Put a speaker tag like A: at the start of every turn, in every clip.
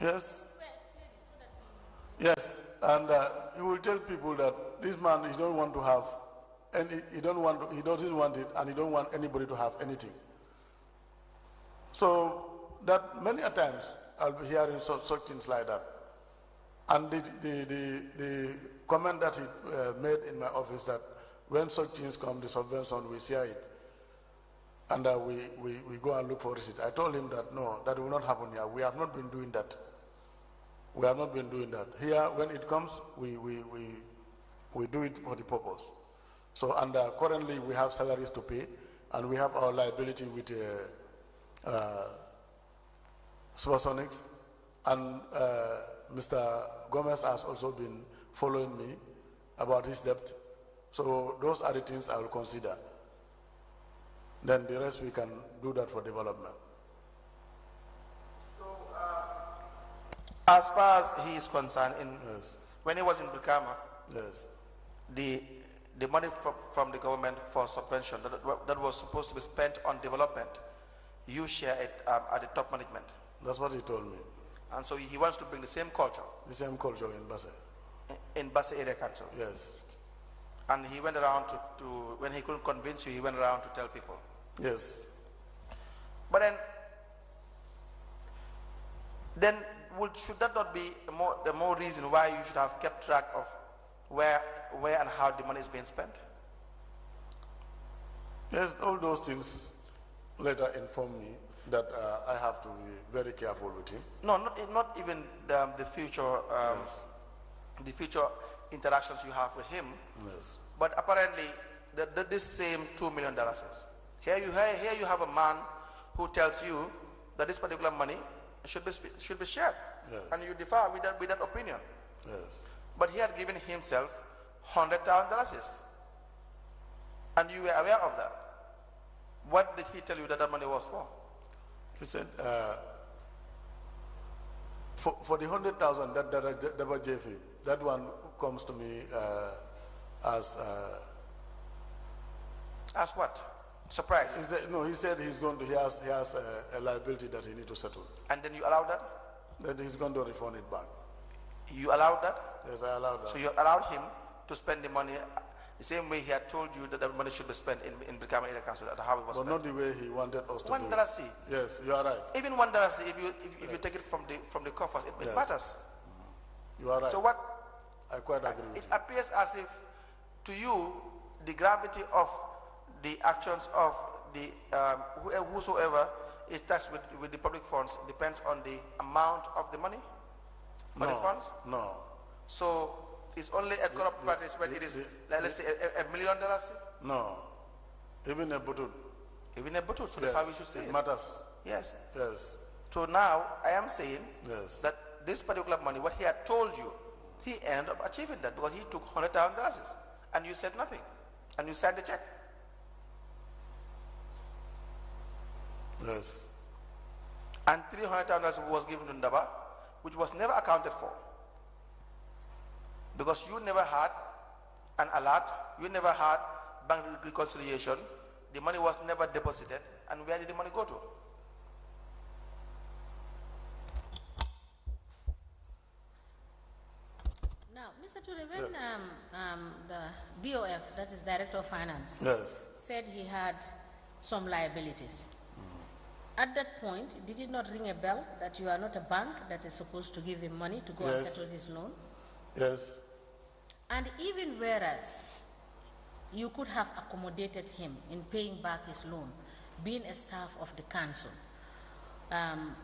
A: Yes? Yes, and uh, he will tell people that this man he don't want to have, and he, he don't want he doesn't want it, and he don't want anybody to have anything. So that many a times I'll be hearing such, such things like that, and the the the, the comment that he uh, made in my office that when such things come, the subvention we share it, and uh, we, we we go and look for receipt. I told him that no, that will not happen here. We have not been doing that. We have not been doing that. Here, when it comes, we, we, we, we do it for the purpose. So, and uh, currently we have salaries to pay and we have our liability with uh, uh, Supersonics and uh, Mr. Gomez has also been following me about his debt. So those are the things I will consider. Then the rest we can do that for development.
B: As far as he is concerned, in,
A: Yes,
B: when he was in Bukama,
A: yes,
B: the, the money from, from the government for subvention that, wa- that was supposed to be spent on development, you share it um, at the top management.
A: that's what he told me.
B: And so he wants to bring the same culture
A: The same culture in Basel.
B: in- in Basa Area Council.
A: Yes,
B: And he went around to, to, when he couldn't convince you, he went around to tell people.
A: yes.
B: But then, then would, should that not be a more, the more reason why you should have kept track of where, where and how the money is being spent?
A: Yes, all those things later informed me that uh, I have to be very careful with him.
B: No, not, e- not even the, um, the future, um, the future interactions you have with him,
A: Yes,
B: but apparently the, the, this same two million dollars is. Here you, here, here you have a man who tells you that this particular money should be, sp- should be shared.
A: Yes.
B: And you differ with that, with that opinion.
A: yes.
B: But he had given himself hundred thousand dollars. And you were aware of that. What did he tell you that that money was for?
A: He said, uh, for, for the 100,000 that, that, I- that was JFE, that one comes to me uh, as. Uh,
B: As what? Surprise.
A: he said, no, he said he's going to, he has, he has a, a liability that he needs to settle,
B: And then you allowed that?
A: that he's going to refund it back.
B: You allowed that?
A: Yes, I allowed that.
B: So you allowed him to spend the money uh, the same way he had told you that the money should be spent in, in Brikama Area Council, that how it was
A: but
B: spent.
A: not the way he wanted us to
B: One
A: do
B: dollar
A: it.
B: see.
A: Yes, you are right.
B: Even one dollar see, if you, if, if you take it from the, from the coffers, it, it
A: Yes.
B: matters.
A: You are right.
B: So what,
A: I quite agree with
B: it
A: you.
B: appears as if to you, the gravity of the actions of the, um, who- whosoever is taxed with, with the public funds depends on the amount of the money, for the
A: No,
B: funds.
A: no,
B: So it's only a corrupt
A: the-
B: practice when
A: the-
B: it is,
A: the-
B: like, let's say, a, a- a million dollars.
A: no. Even a button.
B: Even a bottle, so that's how we should say
A: it
B: it.
A: matters.
B: Yes.
A: Yes,
B: So now I am saying
A: yes,
B: that this particular money, what he had told you, he ended up achieving that because he took hundred thousand dollars, and you said nothing, and you signed the check.
A: yes,
B: And three hundred thousand dollars was given to Ndaba, which was never accounted for. Because you never had an alert, you never had bank reconciliation, the money was never deposited, and where did the money go to?
C: Now, Mr. Ture, when um, um, the DOF, that is Director of Finance,
A: yes.
C: said he had some liabilities, at that point, did it not ring a bell that you are not a bank that is supposed to give him money to go and
A: Yes.
C: settle his loan?
A: Yes,
C: And even whereas you could have accommodated him in paying back his loan, being a staff of the council, um,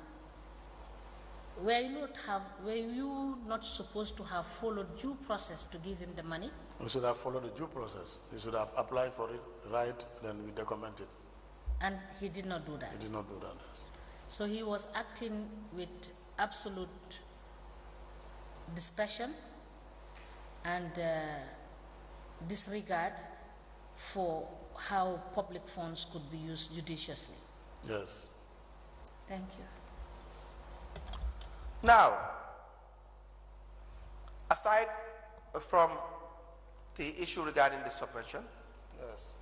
C: were you not have were you not supposed to have followed due process to give him the money?
A: we should have followed the due process. We should have applied for it, right, then we document it.
C: And he did not do that.
A: We did not do that.
C: So he was acting with absolute discretion and uh, disregard for how public funds could be used judiciously.
A: Yes,
C: Thank you.
B: Now, aside from the issue regarding the subvention,
A: yes.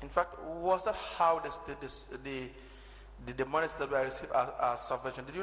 B: in fact, was that how this, the, this, the, the, the monies that were received as, as subvention, did you